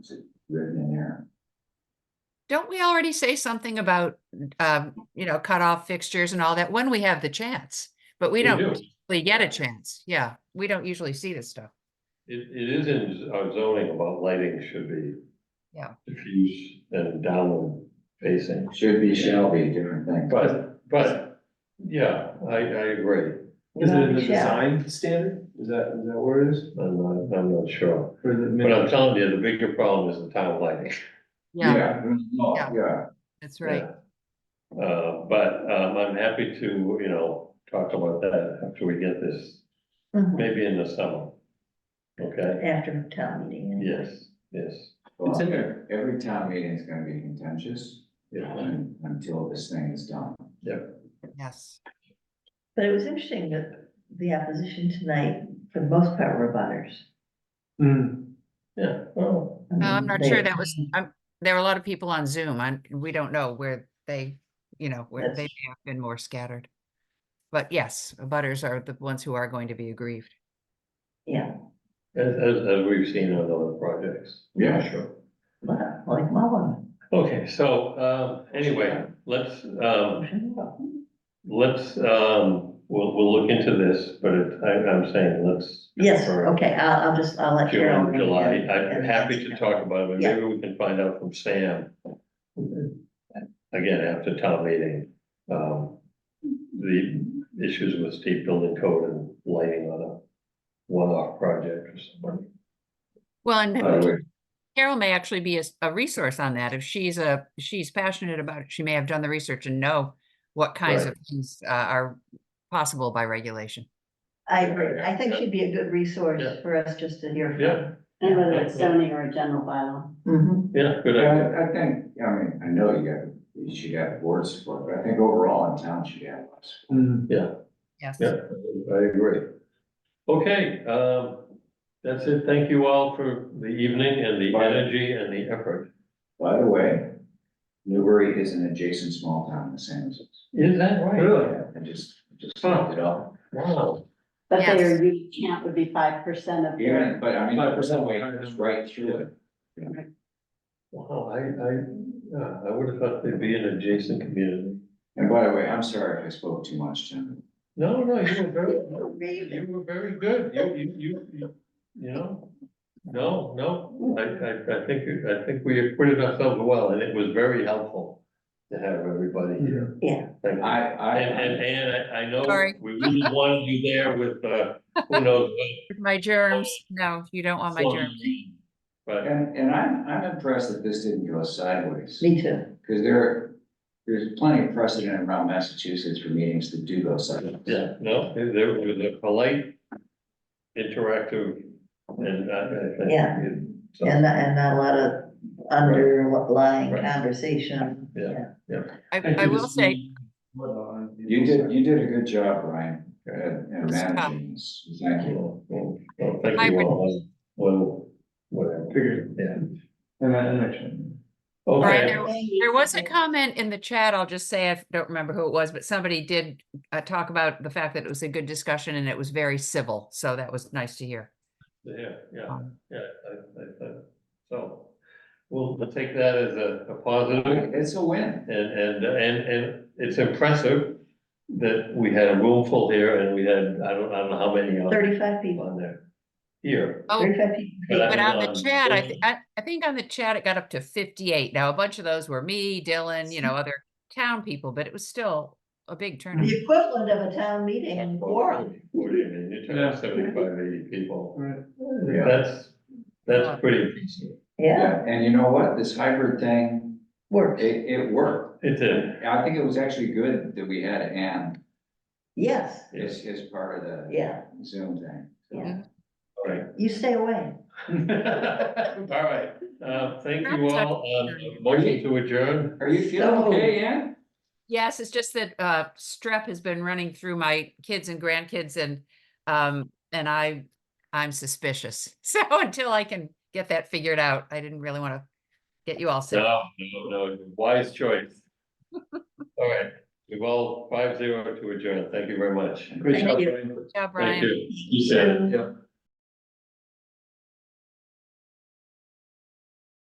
Is it written in there? Don't we already say something about, um, you know, cutoff fixtures and all that when we have the chance? But we don't usually get a chance. Yeah, we don't usually see this stuff. It, it is in our zoning about lighting should be. Yeah. Diffuse and downward facing, Should be, shall be, different thing. but, but, yeah, I, I agree. Is it in the Yeah. design standard? Is that, is that where it is? I'm not, I'm not sure, Or the but I'm minimum? telling you, the bigger problem is the town lighting. Yeah, no, Yeah. yeah. that's right. Yeah. Uh, but, um, I'm happy to, you know, talk about that after we get this, Mhm. maybe in the summer. Okay, After town meeting. yes, yes, Well, It's in there. Every town meeting is gonna be contentious yeah, un- until this thing is done. Yes. But it was interesting that the opposition tonight, for the most part, were butters. Mm. yeah, well, I mean, Oh, I'm not they- sure that was, I'm, there were a lot of people on Zoom. I, we don't know where they, you know, where they may That's- have been more scattered. But yes, butters are the ones who are going to be aggrieved. Yeah, as, as, as we've seen on other projects. Yeah. Sure. but like my one. Okay, so, um, anyway, let's, um, motion vote. let's, um, we'll, we'll look into this, but it- I, I'm saying, let's. Yes, for okay, I'll, I'll just, I'll let Cheryl. June, know. July, I'm happy to talk about it, but Yeah. maybe we can find out from Sam. Again, after town meeting, um, the issues with steep building code and lighting on a one-off project or something. Well, By and the way, Carol may actually be a, s- a resource on that. If she's a, she's passionate about it, she may have done the research and know what kinds Right. of things uh, are possible by regulation. I agree. I think Yeah. she'd be a good resource Yeah. for us just to hear. Yeah, And whether it's zoning or a general bylaw. from. yeah, good idea. I, I think, I mean, I know you got, you should have board support, but I think overall in town should have lots. Mm. Yes. Yeah, I agree. Okay, um, that's it. Thank you all for the evening and the Bye. energy and the effort. By the way, Newbury is an adjacent small town, the same as us. Is that right? Really? I just, just looked it up. Wow. But Yes. their youth camp would be five percent of Even, their, but I mean, five percent weight is right through it. Wow, I, I, yeah, I would have thought they'd be an adjacent community. And by the way, I'm sorry if I spoke too much, Jim. No, no, you were very, Mhm. you were very good. You, you, you, you, you know? No, no, I, I, I think, I think we acquitted ourselves well and it was very helpful to have everybody here. Yeah. Thank you. I, And, and, I, and I, I know Sorry. we really wanted you there with, uh, who knows My germs, no, you don't want what. my germs. But, and, and I'm, I'm impressed that this didn't go sideways. Me too. Because there, there's plenty of precedent around Massachusetts for meetings that do go sideways. yeah, no, there was a polite, interactive, and I, I think. Yeah. it- so, And, not- and not a lot of underlying Right. conversation. Yeah. I, I will say, You did, you did a good job, Ryan, at, at managing this. Thank you. Well, well, well, Thank you Hybrid. all. Well, whatever. Figured. Yeah. And that, and that. Brian, Okay, there, there was a comment in the chat, I'll just say, I don't remember who it was, but somebody did uh, talk about the fact that it was a good discussion and it was very civil, so that was nice to hear. yeah, yeah, Um, yeah, I, I, I- so, we'll, we'll take that as a, a positive. It's a win. And, and, and, and it's impressive that we had a room full here and we had, I don't, I don't know how many on, Thirty-five people, on there. Here, Oh, thirty-five people. But I but on um, the chat, I, Dylan- thi- I, I think on the chat, it got up to fifty-eight. Now, a bunch of those were me, Dylan, you know, other town people, but it was still a big turnout. The equivalent of a town meeting in Gorham. what do you mean, you turned out seventy-five, eighty people. Right. Yeah. That's, that's pretty impressive. Yeah, Yeah, and you know what? This hybrid thing, works. it, it worked. It did, I think it was actually good that we had Ann Yes, as, as part of the yeah, Zoom thing. yeah. all right. You stay away. All right, uh, thank you all, um, motion to adjourn, Are you feeling No. okay, Ann? Yes, it's just that uh strep has been running through my kids and grandkids and um and I I'm suspicious. So until I can get that figured out, I didn't really want to get you all sick. no, no, no, wise choice. All right, we've all five zero to adjourn, thank you very much. Great Thank job, you. Ryan. Yeah, Brian. Thank you. You said it. Yep.